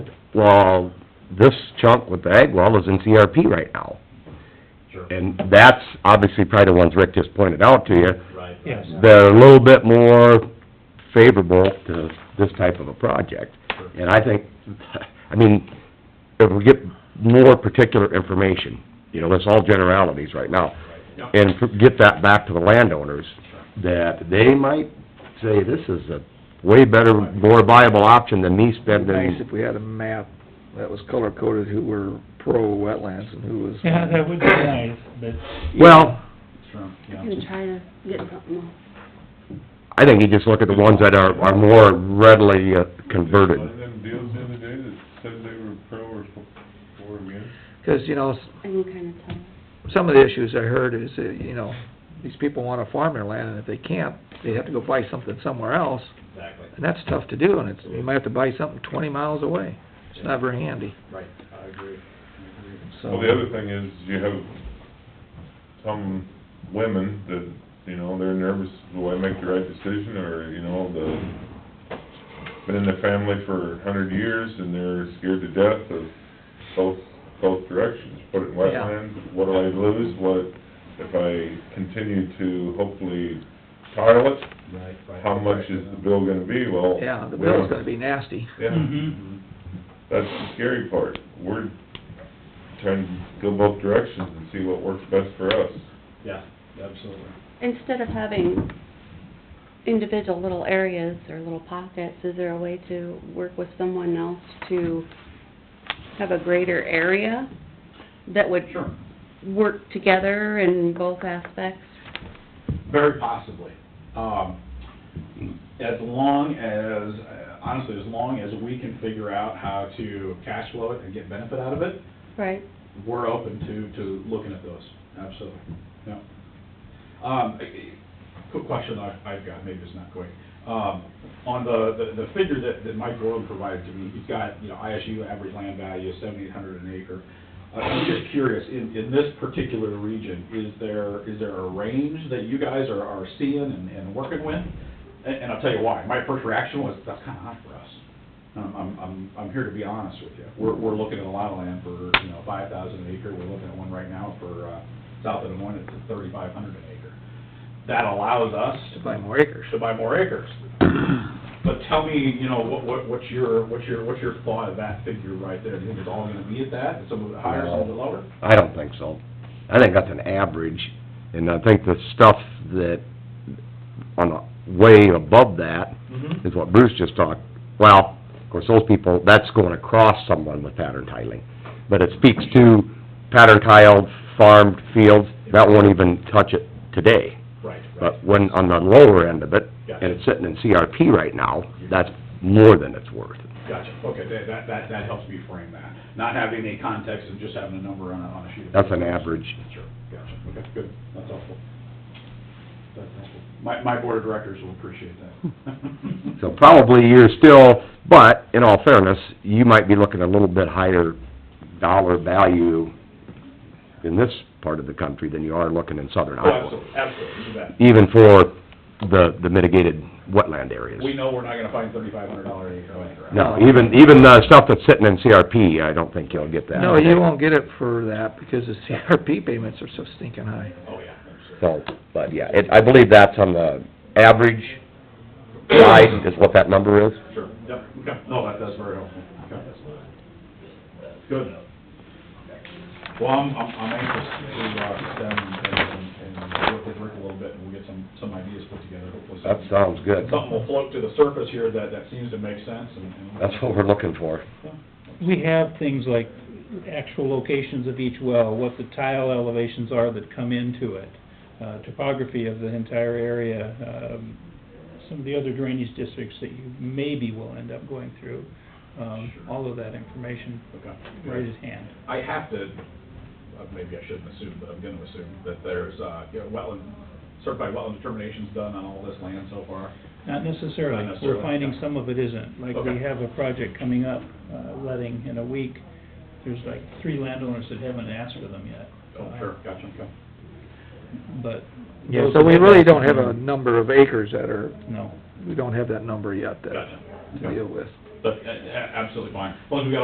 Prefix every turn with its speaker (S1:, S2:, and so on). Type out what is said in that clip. S1: Well, this chunk with the ag well is in CRP right now.
S2: Sure.
S1: And that's obviously probably the ones Rick just pointed out to you.
S2: Right.
S3: Yes.
S1: They're a little bit more favorable to this type of a project. And I think, I mean, if we get more particular information, you know, that's all generalities right now,
S2: Yep.
S1: and get that back to the landowners, that they might say, this is a way better, more viable option than me
S4: It'd be nice
S1: spending
S4: if we had a map that was color-coded who were pro-wetlands and who was...
S3: Yeah, that would be nice, but
S1: Well,
S2: Sure, yeah.
S5: Gonna try to get something.
S1: I think you just look at the ones that are, are more readily uh, converted.
S6: One of them deals the other day that said they were pro or for- or against.
S4: Because, you know, s-
S5: I can kinda tell.
S4: some of the issues I heard is, that, you know, these people wanna farm their land, and if they can't, they have to go buy something somewhere else,
S2: Exactly,
S4: and that's tough to do, and it's, you might have to buy something twenty miles away. It's not very handy,
S2: right, I agree, I agree.
S4: so...
S6: Well, the other thing is, you have some women that, you know, they're nervous, do I make the right decision, or, you know, the, been in the family for a hundred years, and they're scared to death of both, both directions, put it in
S4: Yeah.
S6: wetlands, what do I lose, what, if I continue to hopefully tile it,
S2: Right, right.
S6: how much is the bill gonna be, well...
S4: Yeah, the
S6: we don't-
S4: bill's gonna be nasty.
S6: Yeah.
S2: Mm-hmm.
S3: Mhm.
S6: That's the scary part. We're trying to go both directions and see what works best for us.
S2: Yeah, absolutely.
S5: Instead of having individual little areas or little pockets, is there a way to work with someone else to have a greater area that would
S2: Sure.
S5: work together in both aspects?
S2: Very possibly. Um, as long as, honestly, as long as we can figure out how to cash flow it and get benefit out of it,
S5: Right,
S2: we're open to, to looking at those, absolutely, yeah. Um, eh, eh, quick question I- I've got, maybe it's not quick. Um, on the, the, the figure that, that Mike Gorham provided to me, he's got, you know, ISU average land value is seventy-eight hundred an acre. Uh, I'm just curious, in, in this particular region, is there, is there a range that you guys are, are seeing and, and working with? And, and I'll tell you why, my first reaction was, that's kinda hot for us. I'm, I'm, I'm, I'm here to be honest with you. We're, we're looking at a lot of land for, you know, five thousand an acre, we're looking at one right now for, uh, south of Des Moines, it's thirty-five hundred an acre. That allows us
S4: To buy more acres.
S2: to buy more acres. But tell me, you know, what, what, what's your, what's your, what's your thought of that figure right there? Do you think it's all gonna be at that, some of it higher, some of it lower?
S1: I don't think so. I think that's an average, and I think the stuff that, on the way above that,
S2: Mm-hmm.
S1: is what Bruce just talked, well, of course, those people, that's going across someone with pattern tiling. But it speaks to pattern tiled farmed fields, that won't even touch it today.
S2: Right, right,
S1: But when, on the lower end of it,
S2: Gotcha.
S1: Uh, and it's sitting in CRP right now, that's more than it's worth.
S2: gotcha. Okay, that, that, that, that helps me frame that. Not having any context and just having a number on a, on a sheet of.
S1: That's an
S2: paper.
S1: average.
S2: Sure, gotcha, okay, good, that's helpful. That's helpful. My, my board of directors will appreciate that.
S1: So probably you're still, but in all fairness, you might be looking a little bit higher dollar value in this part of the country than you are looking in southern
S2: Oh,
S1: Iowa,
S2: absolutely, absolutely, you bet.
S1: even for the, the mitigated wetland areas.
S2: We know we're not gonna find thirty-five hundred dollar an acre land, right?
S1: No, even, even the stuff that's sitting in CRP, I don't think you'll get that.
S4: No, you won't get it for that, because the CRP payments are so stinking high.
S2: Oh, yeah, absolutely.
S1: So, but yeah, it, I believe that's on the average side is what that number is.
S2: Sure, yep, okay, no, that, that's very helpful, okay. Good. Well, I'm, I'm I'm anxious to, uh, sit down and, and, and work with Rick a little bit, and we'll get some, some ideas put together, hopefully.
S1: That sounds good.
S2: Something will float to the surface here that, that seems to make sense, and. and-
S1: That's what we're looking for.
S3: we have things like actual locations of each well, what the tile elevations are that come into it, uh, topography of the entire area, um, some of the other drainage districts that you maybe will end up going through. Um, all of that information
S2: Okay.
S3: right at hand.
S2: I have to, uh, maybe I shouldn't assume, but I'm gonna assume that there's, uh, you know, wetland, certified wetland determinations done on all this land so far.
S3: Not necessarily,
S2: Not necessarily,
S3: we're finding
S2: yeah.
S3: some of it isn't, like we
S2: Okay.
S3: have a project coming up, uh, letting in a week, there's like three landowners that haven't asked for them yet.
S2: Oh,
S3: Uh,
S2: sure, gotcha, okay.
S3: But.
S4: Yeah,
S3: those
S4: so we
S3: that
S4: really
S3: asked
S4: don't
S3: for
S4: have a
S3: them,
S4: number of acres that are,
S3: No.
S4: we don't have that number yet that
S2: Gotcha.
S4: to deal with.
S2: But, uh, a- absolutely fine. As long as we got